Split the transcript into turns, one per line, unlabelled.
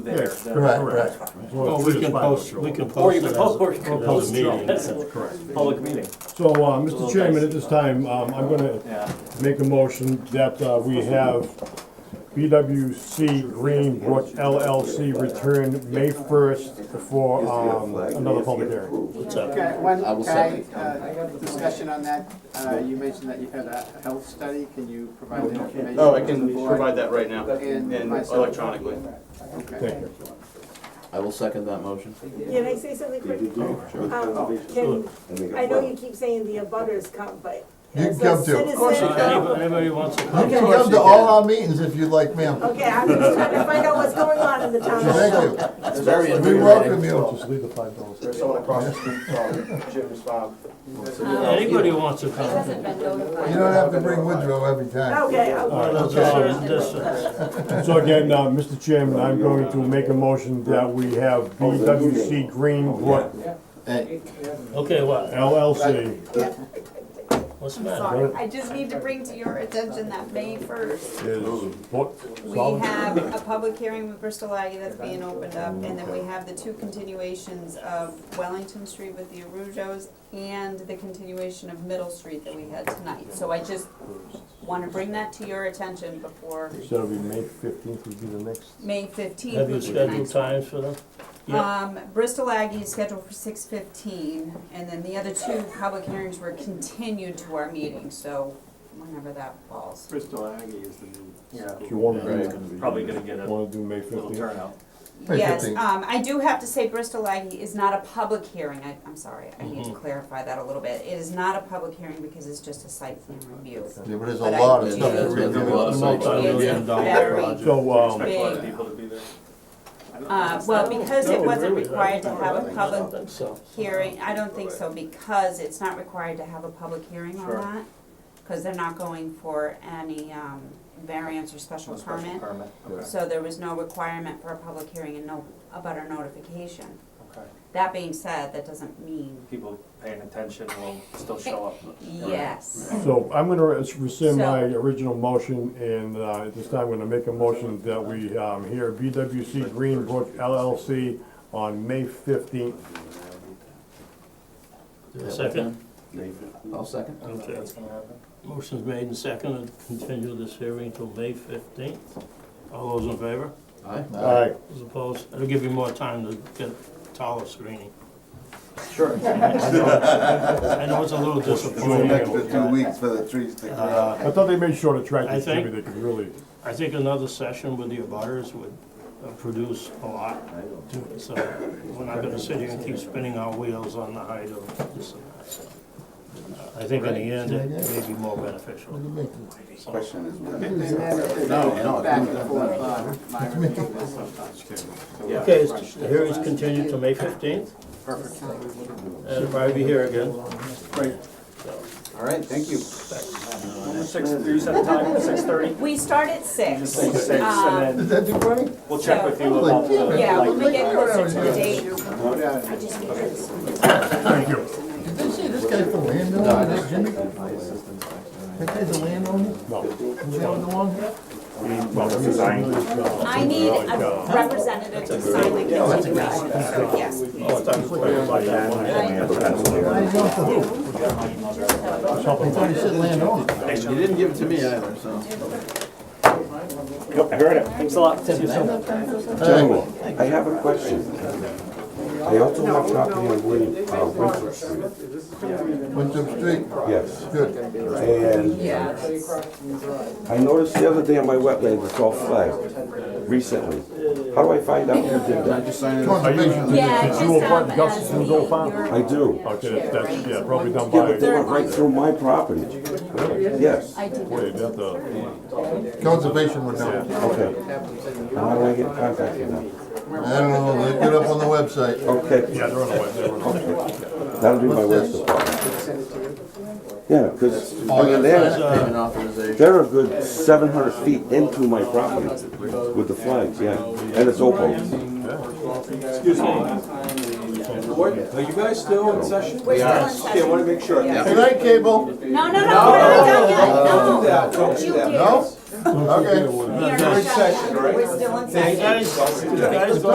there. the-
Right, right.
Correct.
Well,
we
it's
can
fine,
post-
sure.
we can
Or you can
Post it
post,
as-
or you can
as a
post,
meeting.
that's a
Correct.
public meeting,
So, uh,
Little
Mr. Chairman,
dice.
at this time, um, I'm gonna
yeah.
make a motion that uh, we have BWC Greenbrook LLC return May first for, um, another public hearing.
What's up?
Okay, one,
I will
can
second.
I, uh, discussion on that, uh, you mentioned that you had a health study, can you provide the information?
Oh, I
to the
can
board?
provide that right now,
And
and
myself.
electronically.
Okay.
Thank you.
I will second that motion.
Can I say something quick? Um, Can, I know you keep saying the abutters come, but
You
as a
come too.
citizen. uh,
Of course
Anybody Uh, anybody wants to
You
come?
can come to all our meetings if you'd like, ma'am.
Okay, I'm just trying to find out what's going on in the town.
Thank you.
It's very
We welcome
invigorating.
you. Just leave the five dollars.
There's someone across the street from Jim's farm.
Um,
Anybody who wants to come.
hasn't been notified.
You don't have to bring Woodrow every time.
Okay, okay.
Well, there's a distance.
So again, uh, Mr. Chairman, I'm going to make a motion that we have BWC Greenbrook
Hey,
Okay, what?
LLC
What's the
I'm
matter?
sorry, I just need to bring to your attention that May first,
is booked.
we have a public hearing with Bristol Aggie that's being opened up, and then we have the two continuations of Wellington Street with the Arujos and the continuation of Middle Street that we had tonight, so I just wanna bring that to your attention before
So it'll be May fifteenth would be the next.
May fifteenth.
Have you scheduled times for them? Yeah.
Um, Bristol Aggie is scheduled for six fifteen, and then the other two public hearings were continued to our meeting, so whenever that falls.
Bristol Aggie is the new.
If you wanna
Right.
do,
Probably gonna get a
wanna do May
little
fifteenth?
turnout.
May
Yes,
15th.
um, I do have to say Bristol Aggie is not a public hearing, I, I'm sorry, I need to clarify that a little bit. It is not a public hearing because it's just a site plan review.
Yeah, but there's
a But I- lot
of stuff to read. There's a lot of sites to read.
It's very,
So, um,
Expect a lot of
big.
people to be there.
uh, well, because it
No,
wasn't
really, I
required to
don't
have a
think
public
so. I think so.
hearing, I don't think so, because it's not required to have a public hearing on
Sure.
that. Cause they're not going for any, um, variance or special
A special
permit.
permit, okay,
So there was no requirement for a public hearing and no, about a notification.
okay.
That being said, that doesn't mean,
People paying attention will still show up.
yes,
so I'm gonna res- rescind
So-
my original motion and, uh, at this time, I'm gonna make a motion that we, um, hear BWC Greenbrook LLC on May fifteenth.
Second,
I'll second.
okay.
That's gonna happen.
Motion's made and seconded, to continue this hearing until May fifteenth. All those in favor?
Aye.
Aye.
Those opposed? It'll give you more time to get taller screening.
Sure.
I know it's a little disappointing.
two weeks for the trees to
Uh,
I thought they made sure to track
I
this, maybe
think-
they could really,
I think another session with the abutters would uh, produce a lot. So we're not gonna sit here and keep spinning our wheels on the height of this and that. So, uh, I think in the end, it may be more beneficial. So,
Question is,
And then if
no,
there's back
no,
and forth uh, on my review list sometimes.
Okay, is- the hearing's continued to May fifteenth,
Perfect.
and it'll probably be here again.
Great.
All right, thank you.
Six, you said the time, six thirty?
we start at six.
Six, six,
Uh,
and
Um,
then
that too funny?
we'll check with you about the,
Yeah, when we
like,
get closer to the date,
Yeah.
I just need this.
Thank you. Did they say this guy's the landowner, this Jimmy? That guy's the landowner? No. Was he on the long hair? Well, this is
I need a representative to sign the continuation, so yes.
Oh, I thought you were talking about that one.
thought he said landowner.
You didn't give it to me either, so.
Nope, I heard it. Thanks a lot. See you soon.
I have a question. I also have a copy of Win- uh, Winthrop Street.
Winthrop Street.
Yes.
Good.
And I noticed the other day on my wetlands, it's all flagged recently. How do I find out who did that?
Just sign it.
Conservation.
Yeah, just,
You will
um,
put Gus
as
and
the-
Joe Farm?
your-
I do.
Okay, that's- that's, yeah, probably done
Yeah, but they
by,
went right through my property. Yes,
I did
wait,
not.
that the,
Conservation would know.
okay. How do I get in contact Oh, with them?
I don't know, look it up on the website.
Okay,
yeah, they're on the way, they're on the way.
that'll be my west department. Yeah, because,
Oh,
I mean,
Sign
they're,
it,
uh,
payment authorization.
they're a good seven hundred feet into my property with the flags, yeah, and it's open.
Excuse me. Are you guys still in session?
We're still
Okay,
in
I want
session.
to make sure.
Yeah.
Good night, Cable.
No, no, no, we're not done yet, no,
Don't do that,
don't you
don't do
dare.
that.
No?
Okay.
We are not done. We're still in session.
Thank you.